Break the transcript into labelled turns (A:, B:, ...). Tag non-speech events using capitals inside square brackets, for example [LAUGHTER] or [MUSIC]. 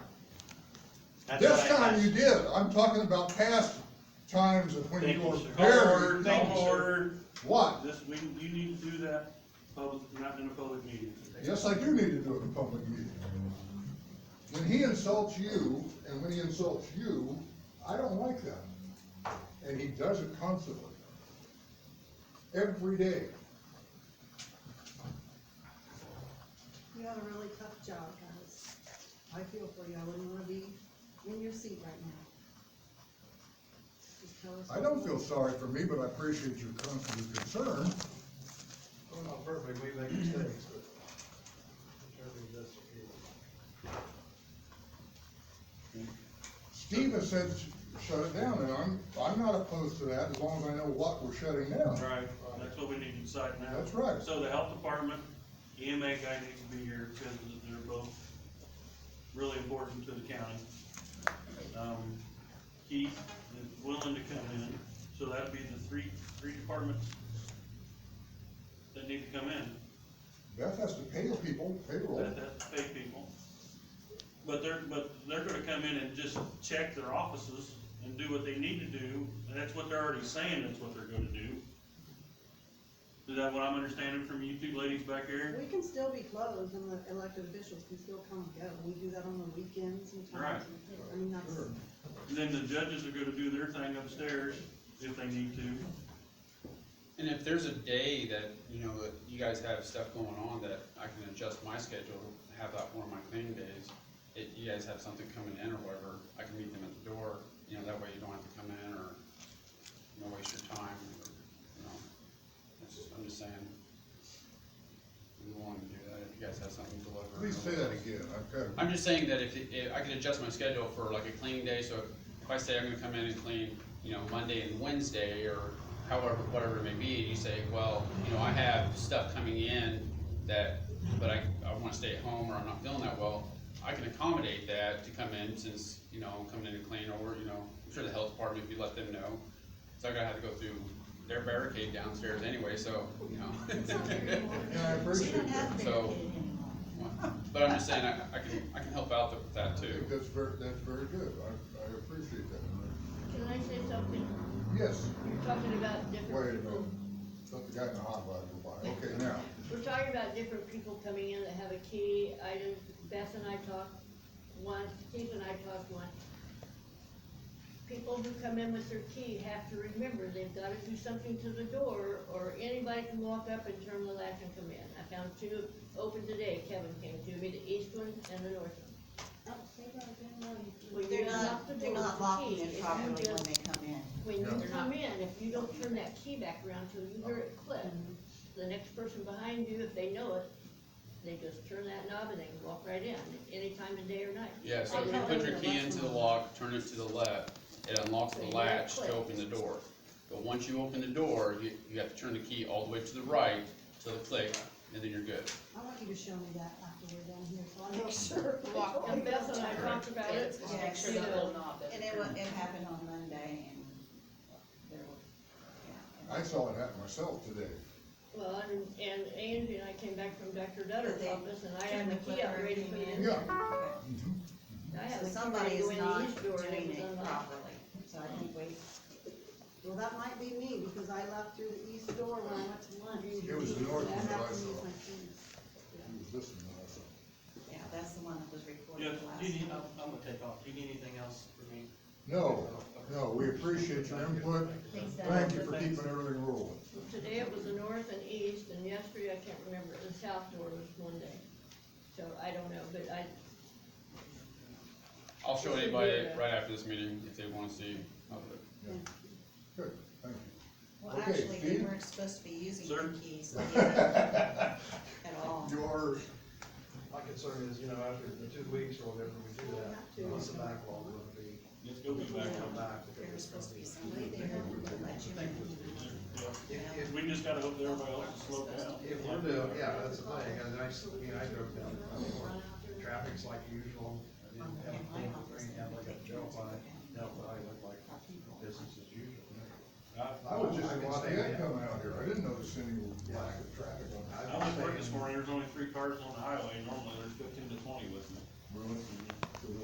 A: That's
B: This
A: what I
B: time
A: asked.
B: you did, I'm talking about past times of when
A: Thank
B: you
A: you,
B: were
A: sir.
B: very.
A: Thank you, sir.
B: What?
A: This, we, you need to do that public, not in a public meeting.
B: Yes, I do need to do it in public meeting. When he insults you, and when he insults you, I don't like that. And he does it constantly. Every day.
C: You have a really tough job, guys. I feel for you, I wouldn't wanna be in your seat right now. Just tell us.
B: I don't feel sorry for me, but I appreciate your constant concern.
D: We're not perfect, we make mistakes, but certainly this is.
B: Steve has said, shut it down, and I'm, I'm not opposed to that, as long as I know what we're shutting down.
A: Right. That's what we need to decide now.
B: That's right.
A: So the health department, EMA guy needs to be here because they're both really important to the county. Um, Keith is willing to come in, so that'd be the three, three departments that need to come in.
B: Beth has to pay the people, payroll.
A: That, that's pay people. But they're, but they're gonna come in and just check their offices and do what they need to do, and that's what they're already saying that's what they're gonna do. Is that what I'm understanding from you two ladies back here?
C: We can still be closed and the elected officials can still come and go. We do that on the weekends and times. I mean, that's,
B: Sure.
A: And then the judges are gonna do their thing upstairs if they need to.
E: And if there's a day that, you know, that you guys have stuff going on that I can adjust my schedule, have that one of my cleaning days, if you guys have something coming in or whatever, I can meet them at the door, you know, that way you don't have to come in or, you know, waste your time, or, you know. That's just, I'm just saying. I'm willing to do that, if you guys have something to deliver.
B: Please say that again, I've got,
E: I'm just saying that if, if, I could adjust my schedule for like a cleaning day, so if I say I'm gonna come in and clean, you know, Monday and Wednesday, or however, whatever it may be, and you say, well, you know, I have stuff coming in that, but I, I wanna stay at home, or I'm not feeling that well, I can accommodate that to come in, since, you know, I'm coming in and clean, or, you know, I'm sure the health department, if you let them know, so I gotta have to go through their barricade downstairs anyway, so, you know.
B: yeah, I
F: We
B: appreciate
F: don't have
B: that.
F: barricaded
E: So-
F: anymore.
E: But I'm just saying, I, I can, I can help out with that
B: I
E: too.
B: think that's very, that's very good, I, I appreciate that.
F: Can I say something?
B: Yes,
F: You're talking about
B: wait a
F: different
B: minute,
F: people.
B: let the guy in the hot rod go by, okay, now,
F: We're talking about different people coming in that have a key item. Beth and I talked once, Steve and I talked once. People who come in with their key have to remember they've gotta do something to the door or anybody can walk up and turn the latch and come in. I found two open today. Kevin came to me, the east one and the north one.
C: Oh, say that again, no, you-
F: Well, you
G: They're
F: lock the
G: not, they're
F: door
G: not
F: with the
G: locking
F: key. If
G: it
F: you
G: properly when
F: just-
G: they come in.
F: When you
B: Yeah.
G: They're
F: come
G: not-
F: in, if you don't turn that key back around till you hear it click, the next person behind you, if they know it, they just turn that knob and they can walk right in, any time of day or night.
E: Yeah, so if you put your key into the lock, turn it to the left, it unlocks the latch to open the door. But once you open the door, you, you have to turn the key all the way to the right, to the click, and then you're good.
C: I want you to show me that after we're done here, so I make sure.
F: Lock. And Beth and I talked about it.
G: Yeah, make sure
F: You
G: the
F: know,
G: little And it wa, it happened on Monday and there were, yeah.
B: I saw it happen myself today.
F: Well, and, and Angie and I came back from Dr.
G: But
F: Dutter's
G: they
F: office and I had the key out ready for you.
B: Yeah.
G: Okay.
F: I had the
G: So
F: key
G: somebody
F: ready to
G: is
F: go in the
G: not
F: east door and it
G: doing
F: was
G: it
F: unlocked.
G: properly, so I think we,
C: Well, that might be me, because I left through the east door when I went to lunch.
B: It was the north
C: I
B: one that
C: have
B: I
C: to use
B: saw.
C: my keys.
B: He was listening when I saw it.
G: yeah, that's the one that was
A: Yeah,
G: recorded last.
A: do you need,
G: time.
A: I'm, I'm gonna take off. Do you need anything else for me?
B: No, no, we appreciate your input,
F: Thanks, Dad.
B: thank you for keeping everything rolling.
F: Today it was the north and east, and yesterday, I can't remember, the south door was one day. So I don't know, but I,
E: I'll show anybody right after this meeting if they wanna see. how the-
B: Good, thank you.
G: Well,
B: Okay,
G: actually, they
B: Steve?
G: weren't supposed to be using
A: Sir?
B: [LAUGHS]
G: their keys at all.
B: Your,
D: My concern is, you know, after the two weeks or whatever we do that, what's the backlog gonna be?
A: Let's go be back.
D: Come back. because
G: There
D: it's
G: was supposed to
D: gonna
G: be somebody there who would let you in.
D: If,
A: We just gotta hope that everybody else is slowed down.
D: if, if we're doing, yeah, that's the thing, and I, s- you know, I drove down, I mean, where traffic's like usual. I didn't have a clean green, had like a gel by, no, but I looked like business as usual.
B: I was just
D: I
B: in
D: can
B: Lafayette
D: stand that.
B: coming out here, I didn't notice any lack of traffic on that.
A: I was working this morning, there's only three cars on the highway, normally there's fifteen to twenty with me.
B: Really?